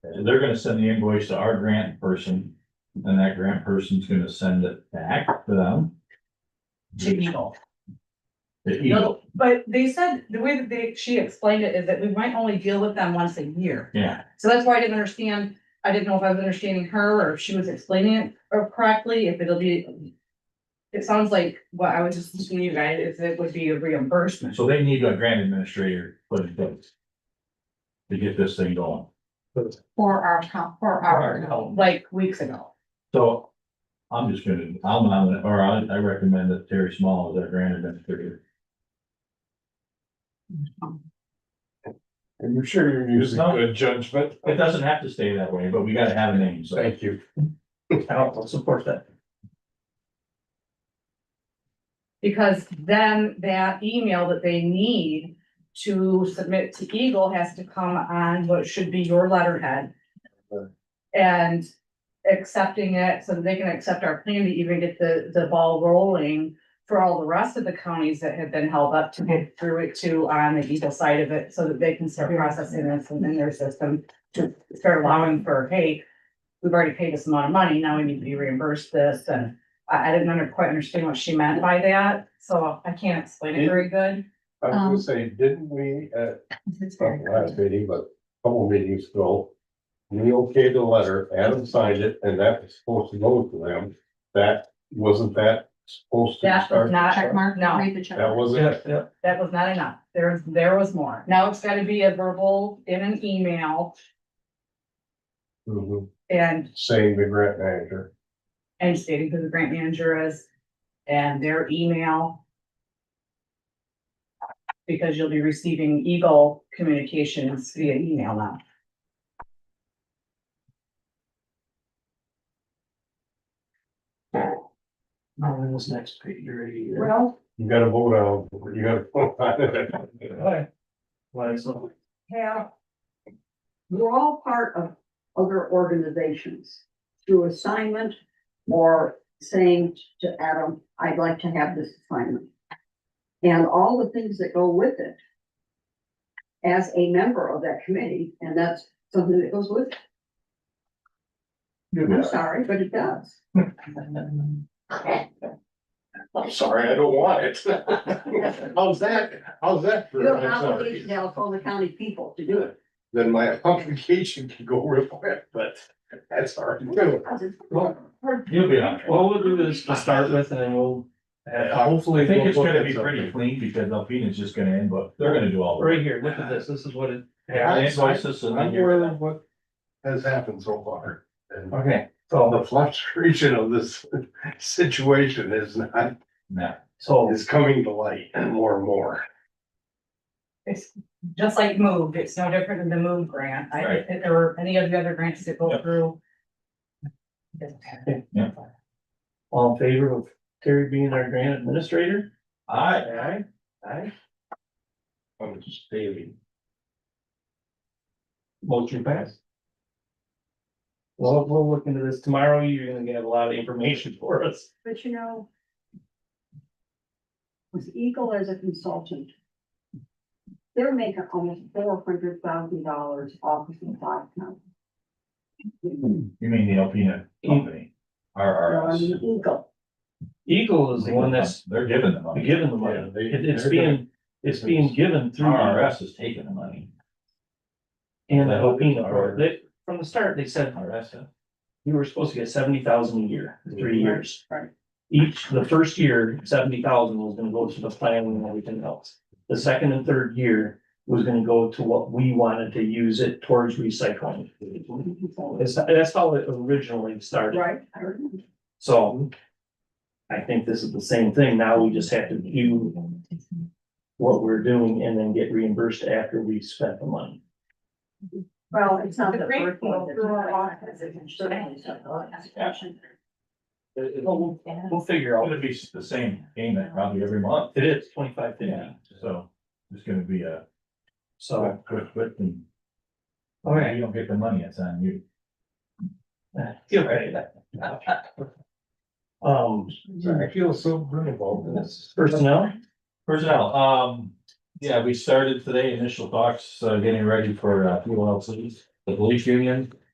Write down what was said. they're gonna send the invoice to our grant person, and that grant person's gonna send it back to them. to Eagle. To Eagle, But they said, the way that they, she explained it is that we might only deal with them once a year. yeah, So that's why I didn't understand, I didn't know if I was understanding her or if she was explaining it or correctly, if it'll be. It sounds like what I was just listening to you guys, is it would be a reimbursement. so they need a grant administrator put in place. To get this thing going, For our, co- for our, No, Like weeks ago. so. I'm just gonna, I'm on it, or I, I recommend that Terry Small is our grant administrator. I'm sure you're using No. good judgment. It doesn't have to stay that way, but we gotta have a name, so. Thank you. I'll support that. Because then that email that they need to submit to Eagle has to come on what should be your letterhead. And accepting it so that they can accept our plan to even get the, the ball rolling for all the rest of the counties that have been held up to get through it too on the Eagle side of it, so that they can start processing this in their system to start allowing for, hey, we've already paid this amount of money, now we need to be reimbursed this and I, I didn't under, quite understand what she meant by that, so I can't explain it very good. I was gonna Um, say, didn't we, uh, it's not very the last meeting, but a couple meetings ago. We okayed the letter, Adam signed it, and that was supposed to go to them. That, wasn't that supposed to That was start? not, check mark, No. read the check. That wasn't, yeah. that was not enough, there, there was more, now it's gotta be a verbal in an email Mhm. and, saying the grant manager. and stating who the grant manager is. And their email. Because you'll be receiving Eagle communications via email now. No, it was next page, you're eighty. Well, You gotta vote on, you gotta. vote on it. Why is it? have, we're all part of other organizations through assignment or saying to Adam, I'd like to have this assignment. And all the things that go with it as a member of that committee, and that's something that goes with it. I'm sorry, but it does. I'm sorry, I don't want it. How's that, how's that? for- You have an I'm sorry. obligation to all the county people to do it. Then my application can go real quick, but that's hard to do. You'll be all right. Well, we'll do this to start with and then we'll, uh, hopefully. I think we'll it's look gonna at be pretty something. clean because Alpina's just gonna invoice, they're gonna do all the. Right here, look at this, this is what it. Yeah. They invoice us and then I'm you're- aware of what has happened so far. And Okay, the so, fluctuation of this situation is not, No. so, is coming to light more and more. it's just like move, it's no different than the move grant, I, or any of the other grants that go Yep. through. all in favor of Terry being our grant administrator? I, Aye. Aye. I'm just stating. Motion passed. Well, we'll look into this tomorrow. You're gonna get a lot of information for us. But you know. With Eagle as a consultant. They're making almost four hundred thousand dollars off of the five county. you mean the Alpina company, R R On S. Eagle, Eagle is the one that's They're giving the money. given the money. Yeah, they- It- It's they're being, it's being given through. R R S is taking the money. And the Yeah. Alpena part, they, from the start, they said R S. you were supposed to get seventy thousand a year, for three Mhm. years. Right. Each, the first year, seventy thousand was gonna go to the plan and everything else. The second and third year was gonna go to what we wanted to use it towards recycling. That's, that's how it originally started, right? I remember. so. I think this is the same thing, now we just have to do what we're doing and then get reimbursed after we spent the money. Well, it's not The the green first will one. that's go not on. off, it's certainly something like that. It- it- uh, We'll we'll figure out, It'll be the same payment probably every month, it is twenty-five Yeah. fifty, so it's gonna be a so. quick, quick thing. All right. You don't get the money, it's on you. You're right. Um, I feel so good about this. personnel, Personnel, um, yeah, we started today, initial talks, uh, getting ready for, uh, fuel LCs. the police union,